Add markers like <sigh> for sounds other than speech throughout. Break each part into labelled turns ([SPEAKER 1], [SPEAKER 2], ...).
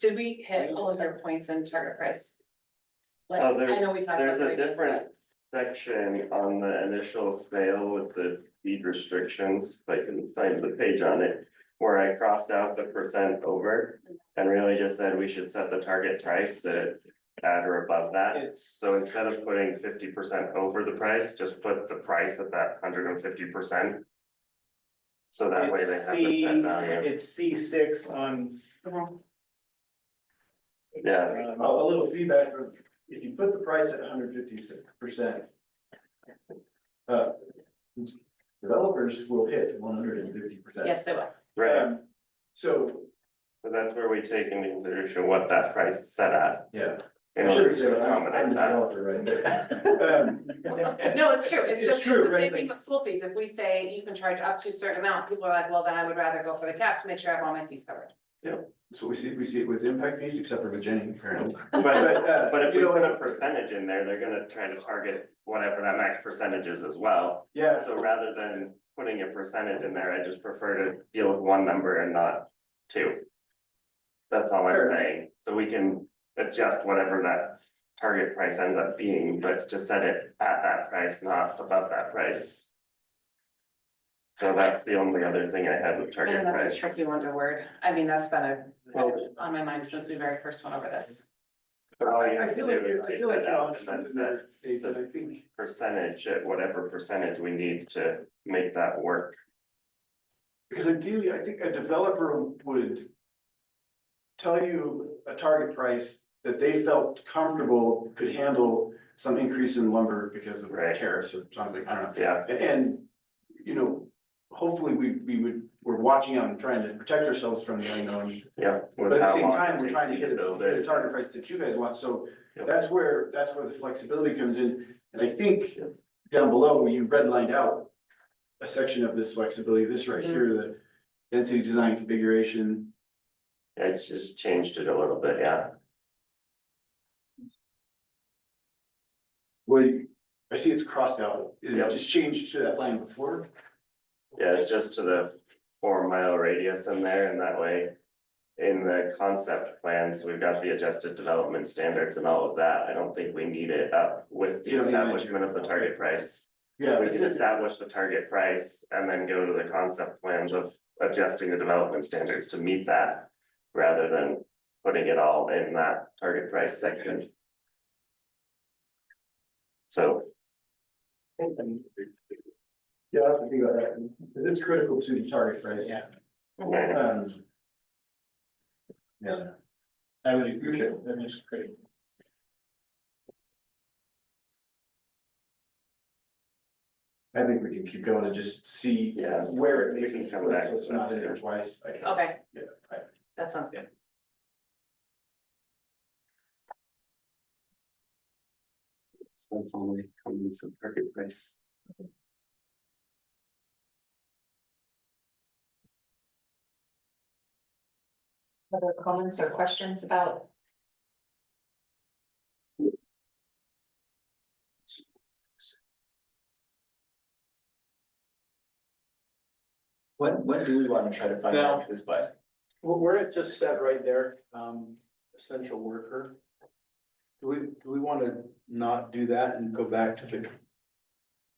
[SPEAKER 1] did we hit all of our points in target price? Like,
[SPEAKER 2] Oh, there-
[SPEAKER 1] I know we talked about.
[SPEAKER 2] There's a
[SPEAKER 1] radius,
[SPEAKER 2] different section on the initial sale with the deed restrictions, if I can find the page on it. Where I crossed out the percent over and really just said we should set the target price at at or above that. So instead of putting fifty percent over the price, just put the price at that hundred and fifty percent. So that way they have the set value,
[SPEAKER 3] It's C six on.
[SPEAKER 1] but- Mhm.
[SPEAKER 2] yeah,
[SPEAKER 3] um, A little feedback, from- if you put the price at hundred fifty six percent. uh, Developers will hit one hundred and fifty percent.
[SPEAKER 1] Yes, they will.
[SPEAKER 3] um,
[SPEAKER 2] right,
[SPEAKER 3] So,
[SPEAKER 2] but that's where we take into consideration what that price is set at.
[SPEAKER 3] yeah.
[SPEAKER 2] In
[SPEAKER 3] I
[SPEAKER 2] order
[SPEAKER 3] shouldn't say
[SPEAKER 2] to
[SPEAKER 3] that, I'm- I'm
[SPEAKER 2] accommodate
[SPEAKER 3] the
[SPEAKER 2] that,
[SPEAKER 3] developer right there. Um, <laughs>
[SPEAKER 1] No, it's true. It's
[SPEAKER 3] It's
[SPEAKER 1] just,
[SPEAKER 3] true,
[SPEAKER 1] it's the
[SPEAKER 3] right,
[SPEAKER 1] same
[SPEAKER 3] like-
[SPEAKER 1] thing with school fees. If we say you can charge up to a certain amount, people are like, well, then I would rather go for the cap to make sure I have all my fees covered.
[SPEAKER 4] So we see, we see it with impact fees except for Virginia, apparently.
[SPEAKER 2] but
[SPEAKER 3] But, uh,
[SPEAKER 2] But if
[SPEAKER 3] you
[SPEAKER 2] we
[SPEAKER 3] know,
[SPEAKER 2] put a percentage in there, they're gonna try to target whatever that max percentage is as well.
[SPEAKER 3] Yeah,
[SPEAKER 2] So rather than putting a percentage in there, I just prefer to deal with one number and not two. That's all I'm
[SPEAKER 3] Fair.
[SPEAKER 2] saying. So we can adjust whatever that target price ends up being, but just set it at that price, not above that price. So that's the only other thing I had with target
[SPEAKER 1] Man, that's a
[SPEAKER 2] price.
[SPEAKER 1] tricky one to word. I mean, that's been a,
[SPEAKER 2] Well-
[SPEAKER 1] on my mind since we very first went over this.
[SPEAKER 2] But all you
[SPEAKER 3] I
[SPEAKER 2] have
[SPEAKER 3] I
[SPEAKER 2] to
[SPEAKER 3] feel
[SPEAKER 2] do
[SPEAKER 3] like,
[SPEAKER 2] is
[SPEAKER 3] you're- I
[SPEAKER 2] take
[SPEAKER 3] feel like
[SPEAKER 2] that
[SPEAKER 3] you're
[SPEAKER 2] out
[SPEAKER 3] on
[SPEAKER 2] and then
[SPEAKER 3] something
[SPEAKER 2] set
[SPEAKER 3] there, Dave, and I think.
[SPEAKER 2] percentage at whatever percentage we need to make that work.
[SPEAKER 3] Because ideally, I think a developer would. Tell you a target price that they felt comfortable could handle some increase in lumber because of
[SPEAKER 2] Right.
[SPEAKER 3] tariffs or something, I don't know.
[SPEAKER 2] Yeah,
[SPEAKER 3] A- And, you know, hopefully we, we would, we're watching out and trying to protect ourselves from the unknown.
[SPEAKER 2] yeah.
[SPEAKER 3] But at the same time, we're trying to hit a, hit a target price that you guys want, so
[SPEAKER 2] Yep.
[SPEAKER 3] that's where, that's where the flexibility comes in. And I think down below, you redlined out a section of this flexibility, this right here, the density design configuration.
[SPEAKER 2] I just changed it a little bit, yeah.
[SPEAKER 3] Well, you- I see it's crossed out, is
[SPEAKER 2] Yep.
[SPEAKER 3] it just changed to that line before?
[SPEAKER 2] Yeah, it's just to the four mile radius in there and that way. In the concept plans, we've got the adjusted development standards and all of that. I don't think we need it up with the
[SPEAKER 3] You don't need it.
[SPEAKER 2] establishment of the target price.
[SPEAKER 3] Yeah.
[SPEAKER 2] We
[SPEAKER 3] it's-
[SPEAKER 2] can establish the target price and then go to the concept plans of adjusting the development standards to meet that. Rather than putting it all in that target price section. So,
[SPEAKER 3] Yeah, I have to think about that, because it's critical to the target price. Yeah.
[SPEAKER 2] yeah,
[SPEAKER 3] Um. Yeah. I would agree, that is critical. I think we can keep going and just see
[SPEAKER 2] yeah,
[SPEAKER 3] where it makes
[SPEAKER 2] We can
[SPEAKER 3] sense,
[SPEAKER 2] come back
[SPEAKER 3] so it's
[SPEAKER 2] to that
[SPEAKER 3] not in there
[SPEAKER 2] too.
[SPEAKER 3] twice. I-
[SPEAKER 1] Okay,
[SPEAKER 3] Yeah, I-
[SPEAKER 1] that sounds good.
[SPEAKER 2] that's only coming to target price.
[SPEAKER 5] Other comments or questions about?
[SPEAKER 6] What, what do we wanna try to find out this by?
[SPEAKER 7] Well, where it just said right there, um, essential worker. Do we, do we wanna not do that and go back to the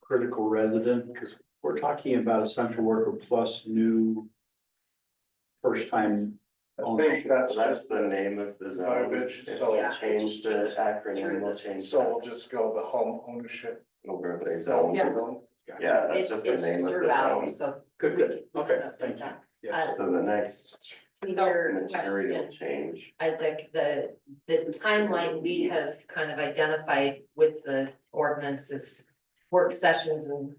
[SPEAKER 7] critical resident? Cause we're talking about essential worker plus new first time.
[SPEAKER 3] I
[SPEAKER 7] ownership.
[SPEAKER 3] think that's
[SPEAKER 2] So that's
[SPEAKER 3] just,
[SPEAKER 2] the name of the zone.
[SPEAKER 3] Verbiage,
[SPEAKER 2] If
[SPEAKER 3] so-
[SPEAKER 2] we Change the acronym, we'll change
[SPEAKER 3] so we'll
[SPEAKER 2] that
[SPEAKER 3] just go the home ownership.
[SPEAKER 2] overlay zone.
[SPEAKER 1] Yeah.
[SPEAKER 2] Yeah, that's just the
[SPEAKER 5] It is
[SPEAKER 2] name of the
[SPEAKER 5] throughout,
[SPEAKER 2] zone.
[SPEAKER 5] So.
[SPEAKER 7] Good, good, okay,
[SPEAKER 5] Yeah.
[SPEAKER 7] thank you, yes.
[SPEAKER 2] So the next
[SPEAKER 5] Uh, Either
[SPEAKER 2] material
[SPEAKER 5] question,
[SPEAKER 2] change,
[SPEAKER 5] Isaac, the, the timeline we have kind of identified with the ordinances, work sessions and,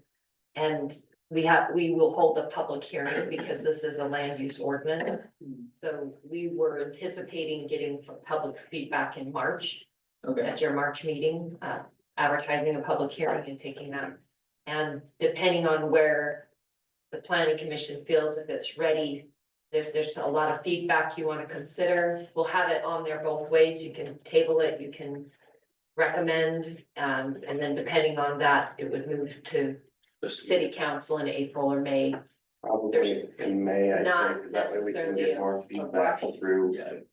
[SPEAKER 5] and we have, we will hold a public hearing because this is a land use ordinance. So we were anticipating getting public feedback in March.
[SPEAKER 6] Okay,
[SPEAKER 5] at your March meeting, uh, advertising a public hearing and taking that. And depending on where the planning commission feels if it's ready, there's, there's a lot of feedback you want to consider. We'll have it on there both ways. You can table it, you can recommend, um, and then depending on that, it would move to city council in April or May.
[SPEAKER 2] probably in May, I
[SPEAKER 5] Not
[SPEAKER 2] think, 'cause that way we can
[SPEAKER 5] necessarily
[SPEAKER 2] get
[SPEAKER 5] a-
[SPEAKER 2] more feedback through
[SPEAKER 6] yeah.